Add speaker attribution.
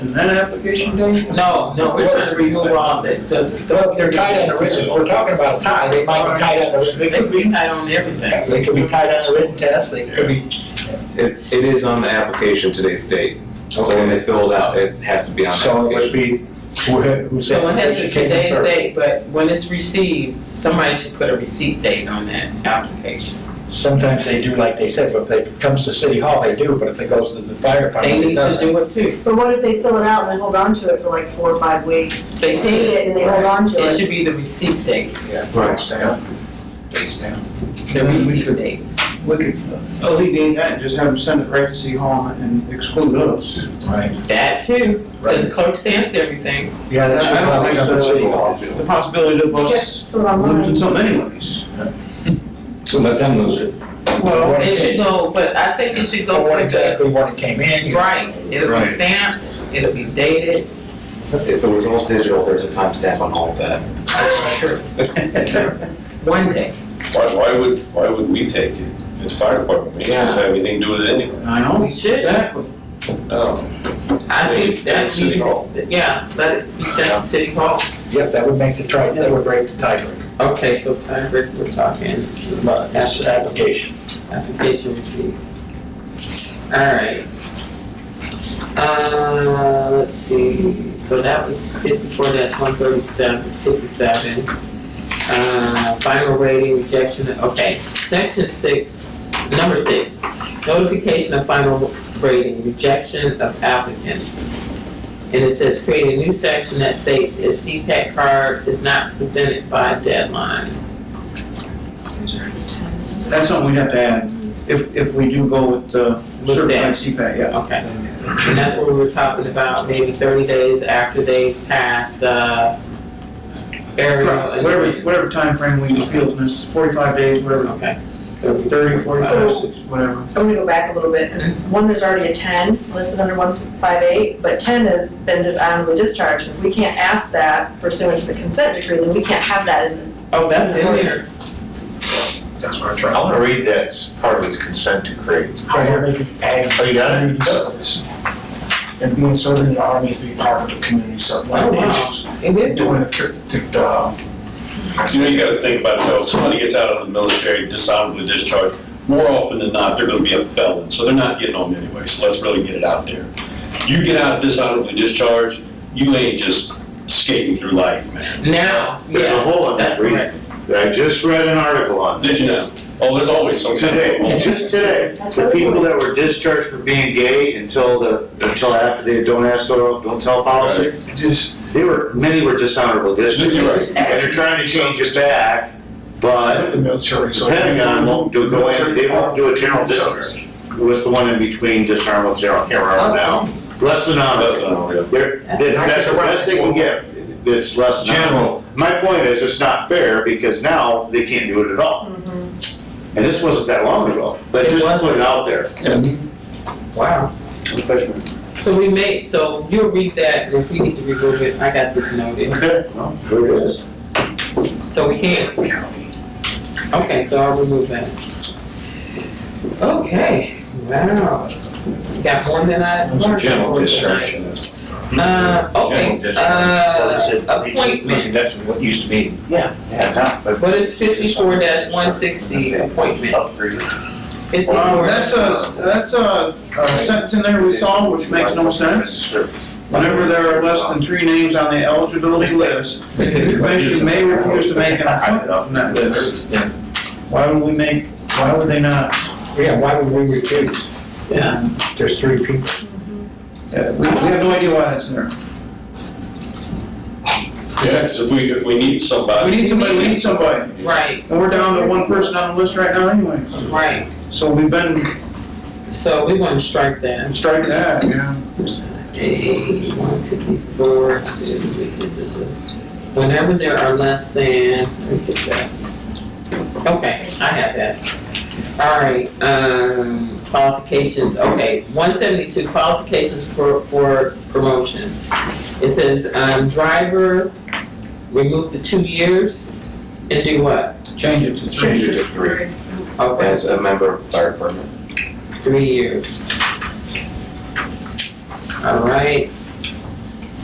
Speaker 1: And that application done?
Speaker 2: No, no, we're trying to remove all the, the,
Speaker 3: Well, if they're tied on the written, we're talking about a tie, they might be tied on the written,
Speaker 2: they
Speaker 3: they could
Speaker 2: could
Speaker 3: be,
Speaker 2: retire on everything.
Speaker 3: they could be tied on the written test, they could be,
Speaker 4: It, it is on the application today's date. So when they fill it out, it has to be on the
Speaker 3: so it would
Speaker 4: application.
Speaker 3: be, who had, who said.
Speaker 2: So it has to
Speaker 3: should take the
Speaker 2: today's
Speaker 3: third.
Speaker 2: date, but when it's received, somebody should put a receipt date on that application.
Speaker 3: Sometimes they do, like they said, but if it comes to city hall, they do, but if it goes to the fire
Speaker 2: They
Speaker 3: department, it
Speaker 2: need to
Speaker 3: doesn't.
Speaker 2: do it too.
Speaker 5: But what if they fill it out and then hold on to it for like four or five weeks?
Speaker 2: They
Speaker 5: Date it and they hold on to
Speaker 2: It
Speaker 5: it.
Speaker 2: should be the receipt date,
Speaker 4: Right.
Speaker 3: Face down.
Speaker 2: the receipt date.
Speaker 1: We could uh, alleviate that, and just have them send it right to City Hall and exclude us.
Speaker 3: Right,
Speaker 2: That too, because
Speaker 3: right.
Speaker 2: the clerk stamps everything.
Speaker 3: Yeah, that should
Speaker 1: I don't
Speaker 3: probably
Speaker 1: like
Speaker 3: come to
Speaker 1: the-
Speaker 3: city hall.
Speaker 1: The possibility of us
Speaker 5: Put it
Speaker 1: losing
Speaker 5: online.
Speaker 1: so many monies.
Speaker 6: So let them lose it.
Speaker 1: Well,
Speaker 3: What
Speaker 2: It
Speaker 3: it
Speaker 2: should
Speaker 3: came-
Speaker 2: go, but I think it should go
Speaker 3: What
Speaker 2: with the,
Speaker 3: exactly, when it came in, you-
Speaker 2: right, it'll be
Speaker 6: Right.
Speaker 2: stamped, it'll be dated.
Speaker 4: If it was all digital, there's a timestamp on all of that.
Speaker 2: That's true. One day.
Speaker 6: Why, why would, why would we take it? It's fire department, we don't have anything to do with it anyway.
Speaker 1: I know,
Speaker 2: We should.
Speaker 1: exactly. Oh,
Speaker 6: No.
Speaker 2: I
Speaker 6: They-
Speaker 2: think
Speaker 6: they-
Speaker 2: that
Speaker 6: City
Speaker 2: we,
Speaker 6: Hall.
Speaker 2: yeah, let it be sent to City Hall.
Speaker 3: yep, that would make the tri, that would break the tie,
Speaker 2: Okay, so time, we're we're talking
Speaker 3: but it's uh, application.
Speaker 2: application receipt. All right. Uh, let's see, so that was fifty-four dash one thirty-seven, fifty-seven. Uh, final rating, rejection, okay, section six, number six, notification of final rating, rejection of applicants. And it says create a new section that states if CPAC card is not presented by deadline.
Speaker 1: That's something we'd have to add, if, if we do go with uh,
Speaker 2: With
Speaker 1: certified
Speaker 2: that.
Speaker 1: CPAC, yeah.
Speaker 2: Okay, and that's what we were talking about, maybe thirty days after they pass the aerial. and-
Speaker 1: Whatever, whatever timeframe we feel is necessary, forty-five days, whatever,
Speaker 2: Okay.
Speaker 1: thirty, forty-five,
Speaker 5: So-
Speaker 1: six, whatever.
Speaker 5: I'm gonna go back a little bit, 'cause one, there's already a ten listed under one five eight, but ten has been dishonorably discharged. If we can't ask that pursuant to the consent decree, then we can't have that in.
Speaker 2: Oh, that's in there.
Speaker 3: That's what I'm trying.
Speaker 7: I want to read that as part of the consent decree.
Speaker 3: Try to make it ag
Speaker 7: Are you done?
Speaker 3: communities. And being serving in the army is being part of the community
Speaker 2: Oh,
Speaker 3: service.
Speaker 2: wow. It is.
Speaker 3: Doing the, cur- to the, um,
Speaker 6: You know, you gotta think about it, though, somebody gets out of the military dishonorably discharged, more often than not, they're gonna be a felon, so they're not getting home anyway, so let's really get it out there. You get out dishonorably discharged, you ain't just skating through life, man.
Speaker 2: Now,
Speaker 7: There's a
Speaker 2: yes,
Speaker 7: hole in that
Speaker 2: that's
Speaker 7: reading.
Speaker 2: correct.
Speaker 7: I just read an article on
Speaker 6: Did
Speaker 7: this
Speaker 6: you know? Oh, there's always some kind of.
Speaker 7: today, just today. The people that were discharged for being gay until the, until after the don't ask, don't don't tell policy,
Speaker 3: just,
Speaker 7: they were, many were dishonorable discharges.
Speaker 6: You're right.
Speaker 7: And they're trying to change it back,
Speaker 3: with
Speaker 7: but
Speaker 3: the military,
Speaker 7: the
Speaker 3: so.
Speaker 7: Pentagon won't do, go in, they won't do a general discharge. What's the one in between dishonorable, general, I can't remember
Speaker 2: Oh,
Speaker 7: now. Less than
Speaker 6: That's not
Speaker 7: honorable.
Speaker 6: real.
Speaker 7: They're, that's the best they can get, it's less than honorable. My point is, it's not fair, because now they can't do it at all. And this wasn't that long ago, but
Speaker 2: It
Speaker 7: just to put
Speaker 2: wasn't.
Speaker 7: it out there.
Speaker 2: Wow. So we made, so you'll read that, and if we need to remove it, I got this noted,
Speaker 7: Okay, well, there it is.
Speaker 2: so we can. Okay, so I'll remove that. Okay, wow. Got more than I learned.
Speaker 6: General
Speaker 2: before tonight. Uh, okay, uh, appointments,
Speaker 7: what used to be.
Speaker 3: Yeah.
Speaker 7: Yeah. but-
Speaker 2: what is fifty-four one sixty, appointment?
Speaker 7: Upgrade.
Speaker 1: Um,
Speaker 2: Fifty-four,
Speaker 1: that's a, Um, that's a, a sentence in there we saw, which makes no sense. Whenever there are less than three names on the eligibility list, the commission may refuse to make an appointment on that list. Why would we make, why would they not?
Speaker 3: Yeah, why would we refuse?
Speaker 2: yeah,
Speaker 3: There's three people.
Speaker 1: Uh, We, we have no idea why that's in there.
Speaker 6: Yeah, 'cause if we, if we need
Speaker 1: We
Speaker 6: somebody.
Speaker 1: need somebody, we need somebody.
Speaker 2: right,
Speaker 1: And we're down to one person on the list right now anyways.
Speaker 2: right,
Speaker 1: So we've been,
Speaker 2: so we want to strike that.
Speaker 1: strike that, yeah.
Speaker 2: Eight, one fifty-four, sixty, whenever there are less than, let me get that. Okay, I have that. All right, um, qualifications, okay, one seventy-two, qualifications for, for promotion. It says, um, driver, remove the two years and do what?
Speaker 1: Change it to
Speaker 4: Change
Speaker 1: three.
Speaker 4: it to three
Speaker 2: Okay,
Speaker 4: as a member of the fire department.
Speaker 2: three years. All right,